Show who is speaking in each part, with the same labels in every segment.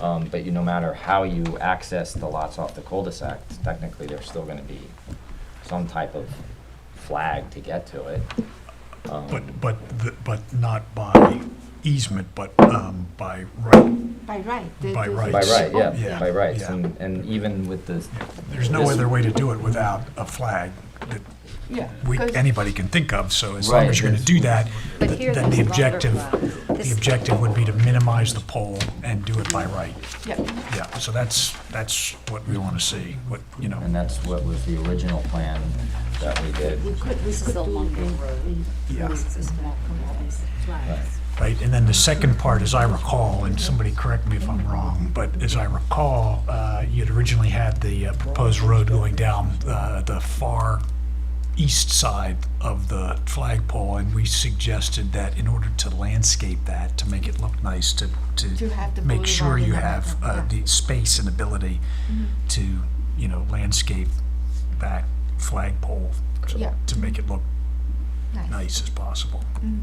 Speaker 1: Um, but you, no matter how you access the lots off the cul-de-sac, technically, there's still gonna be some type of flag to get to it.
Speaker 2: But, but, the- but not by easement, but um, by right.
Speaker 3: By right. the-
Speaker 2: By
Speaker 3: the-
Speaker 2: right.
Speaker 1: By right, yeah,
Speaker 2: oh, Yeah,
Speaker 1: by rights,
Speaker 2: yeah.
Speaker 1: and, and even with the,
Speaker 2: There's no
Speaker 1: This-
Speaker 2: other way to do it without a flag that
Speaker 3: Yeah.
Speaker 2: we,
Speaker 3: because-
Speaker 2: anybody can think of, so as long as you're gonna do that,
Speaker 4: But
Speaker 2: th-
Speaker 4: here
Speaker 2: then the
Speaker 4: there's longer
Speaker 2: objective,
Speaker 4: flags.
Speaker 2: the objective would be to minimize the pole and do it by right.
Speaker 3: Yeah,
Speaker 2: Yeah, so that's, that's what we wanna see, what, you know,
Speaker 1: and that's what was the original plan that we did.
Speaker 3: we could, we
Speaker 4: This is
Speaker 3: could
Speaker 4: a
Speaker 3: do
Speaker 4: longer
Speaker 3: in-
Speaker 4: road.
Speaker 3: in-
Speaker 2: Yeah.
Speaker 4: This is more compromised flags.
Speaker 2: right? And then the second part, as I recall, and somebody correct me if I'm wrong, but as I recall, uh, you'd originally had the uh, proposed road going down uh, the far east side of the flagpole, and we suggested that in order to landscape that, to make it look nice, to,
Speaker 3: To have the
Speaker 2: to make sure
Speaker 3: boulevard in
Speaker 2: you
Speaker 3: the
Speaker 2: have
Speaker 3: back,
Speaker 2: uh,
Speaker 3: yeah.
Speaker 2: the space and ability
Speaker 3: Mm-hmm.
Speaker 2: to, you know, landscape that flagpole so-
Speaker 3: Yeah.
Speaker 2: to make it look
Speaker 3: Nice.
Speaker 2: nice as possible.
Speaker 3: Mm.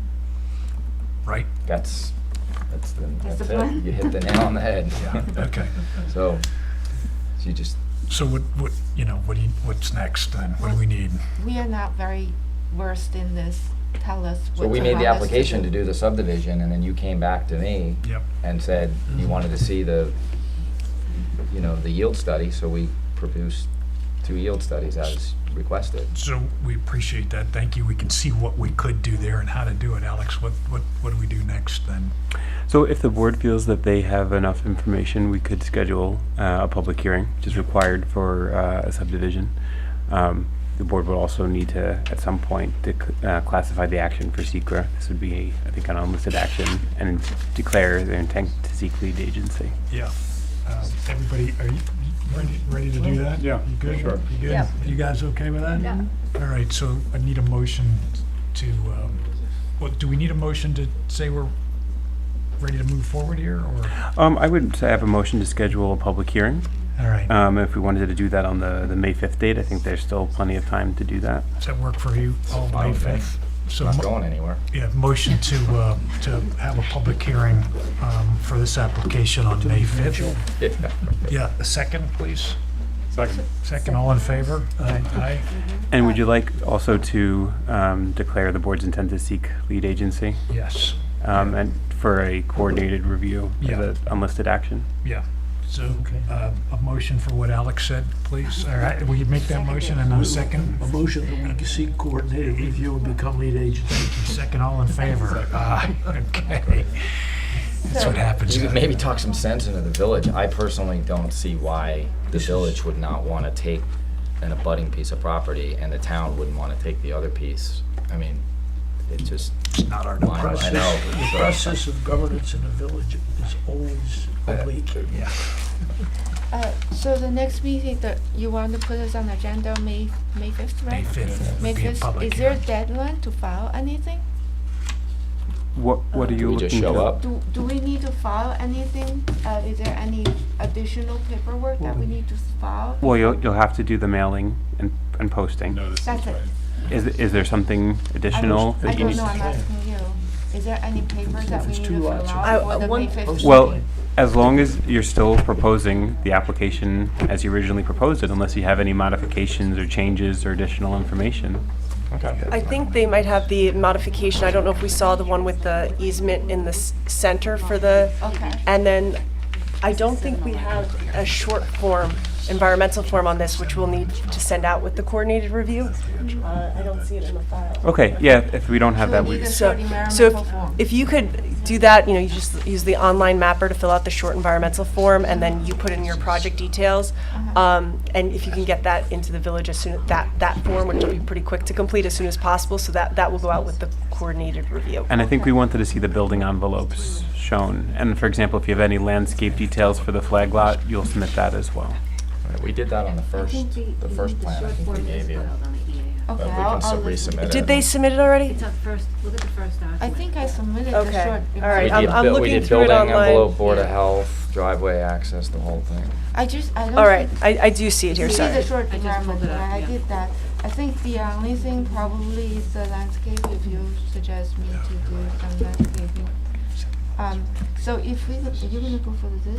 Speaker 2: Right?
Speaker 1: That's, that's the,
Speaker 3: That's
Speaker 1: that's
Speaker 3: the
Speaker 1: it,
Speaker 3: plan.
Speaker 1: you hit the nail on the head.
Speaker 2: Yeah, okay.
Speaker 1: So, so you just,
Speaker 2: So what, what, you know, what do you, what's next then? What do we need?
Speaker 3: We are not very versed in this. Tell us what.
Speaker 1: so we
Speaker 3: you
Speaker 1: made the
Speaker 3: want us
Speaker 1: application to do the subdivision, and then you came back to me
Speaker 2: Yep.
Speaker 1: and said
Speaker 2: Mm-hmm.
Speaker 1: you wanted to see the, you know, the yield study, so we produced two yield studies as requested.
Speaker 2: So we appreciate that. Thank you. We can see what we could do there and how to do it. Alex, what, what, what do we do next then?
Speaker 5: So if the board feels that they have enough information, we could schedule uh, a public hearing, which is required for uh, a subdivision. Um, The board would also need to, at some point, to cl- uh, classify the action for secra. This would be, I think, an unlisted action, and declare their intent to seek lead agency.
Speaker 2: Yeah. Um, Everybody, are you you ready, ready to do that?
Speaker 6: Yeah,
Speaker 2: You good?
Speaker 6: sure.
Speaker 2: You good?
Speaker 4: Yeah.
Speaker 2: You guys okay with that?
Speaker 4: Yeah.
Speaker 2: All right, so I need a motion to, um, what, do we need a motion to say we're ready to move forward here or?
Speaker 5: Um, I would say I have a motion to schedule a public hearing.
Speaker 2: All right.
Speaker 5: Um, If we wanted to do that on the, the May 5th date, I think there's still plenty of time to do that.
Speaker 2: Does that work for you? All May
Speaker 1: with me.
Speaker 2: 5th? So
Speaker 1: Not
Speaker 2: mo-
Speaker 1: going anywhere.
Speaker 2: Yeah, motion to, uh, to have a public hearing um, for this application on May 5th. Yeah, a second, please.
Speaker 6: Second.
Speaker 2: Second, all in favor? Aye.
Speaker 5: And would you like also to um, declare the board's intent to seek lead agency?
Speaker 2: Aye. Yes,
Speaker 5: Um, and for a coordinated review
Speaker 2: Yeah.
Speaker 5: of the unlisted action.
Speaker 2: yeah. So uh, a motion for what Alex said, please. All right, will you make that motion and a second?
Speaker 7: A motion that we seek coordinated review and become lead agency.
Speaker 2: Second, all in favor? Aye, okay. That's what happens.
Speaker 1: You could maybe talk some sense into the village. I personally don't see why the village would not want to take an abutting piece of property and the town wouldn't want to take the other piece. I mean, it just,
Speaker 2: It's not our
Speaker 1: I know,
Speaker 2: department.
Speaker 1: I
Speaker 7: The
Speaker 1: know. so-
Speaker 7: process of governance in the village is always oblique.
Speaker 2: Yeah.
Speaker 3: Uh, So the next meeting, that you want to put us on agenda, May, May fifth,
Speaker 2: May
Speaker 3: right?
Speaker 2: 5th
Speaker 3: May
Speaker 2: would be a
Speaker 3: fifth,
Speaker 2: public
Speaker 3: is there a
Speaker 2: hearing.
Speaker 3: deadline to file anything?
Speaker 5: What, what are you
Speaker 1: We
Speaker 5: looking
Speaker 1: just
Speaker 5: to?
Speaker 1: show up.
Speaker 3: Do, do we need to file anything? Uh, is there any additional paperwork that we need to file?
Speaker 5: Well, you'll, you'll have to do the mailing and, and posting.
Speaker 6: No, this is
Speaker 3: That's it.
Speaker 6: right.
Speaker 5: Is, is there something
Speaker 3: I
Speaker 5: additional?
Speaker 3: don't-
Speaker 5: that
Speaker 3: I
Speaker 5: you
Speaker 3: don't
Speaker 5: need-
Speaker 3: know, I'm asking you. Is there any paper that we
Speaker 7: it's
Speaker 3: need
Speaker 7: two
Speaker 3: to fill
Speaker 7: lots,
Speaker 3: out
Speaker 4: I-
Speaker 8: uh,
Speaker 3: for
Speaker 4: I
Speaker 3: the May
Speaker 4: want-
Speaker 3: fifth?
Speaker 5: Well, as long as you're still proposing the application as you originally proposed it, unless you have any modifications or changes or additional information.
Speaker 8: I think they might have the modification, I don't know if we saw the one with the easement in the s- center for the,
Speaker 3: Okay.
Speaker 8: and then I don't think we have a short form, environmental form on this, which we'll need to send out with the coordinated review. Uh, I don't see it in the file.
Speaker 5: Okay, yeah, if we don't have that, we,
Speaker 3: Need a
Speaker 8: So,
Speaker 3: short
Speaker 8: so
Speaker 3: environmental form.
Speaker 8: if, if you could do that, you know, you just use the online mapper to fill out the short environmental form, and then you put in your project details.
Speaker 3: Uh-huh.
Speaker 8: Um, and if you can get that into the village as soon, that, that form, which will be pretty quick to complete as soon as possible, so that, that will go out with the coordinated review.
Speaker 5: and I think we wanted to see the building envelopes shown. And for example, if you have any landscape details for the flag lot, you'll submit that as well.
Speaker 1: We did that on the first,
Speaker 4: E
Speaker 1: the first plan I think we gave you.
Speaker 3: Okay,
Speaker 1: But we
Speaker 3: I'll-
Speaker 1: can
Speaker 3: I'll
Speaker 1: sub-
Speaker 3: look into
Speaker 1: resubmit
Speaker 3: it.
Speaker 1: it.
Speaker 8: Did they submit it already?
Speaker 4: It's up first, look at the first document.
Speaker 3: I think I submitted the
Speaker 8: Okay,
Speaker 3: short.
Speaker 8: all right,
Speaker 1: We
Speaker 8: I'm-
Speaker 1: did
Speaker 8: I'm
Speaker 1: bu-
Speaker 8: looking through it
Speaker 1: We did building
Speaker 8: online.
Speaker 1: envelope, Board of Health, driveway access, the whole thing.
Speaker 3: I just, I don't.
Speaker 8: All right,
Speaker 3: think-
Speaker 8: I, I do see it here,
Speaker 3: See the
Speaker 8: sorry.
Speaker 3: short
Speaker 4: I just
Speaker 3: environment,
Speaker 4: pulled it up,
Speaker 3: plan, I
Speaker 4: yeah.
Speaker 3: did that. I think the only thing probably is the landscape, if you suggest me to do some landscaping. Um, so if we, are you gonna go for this?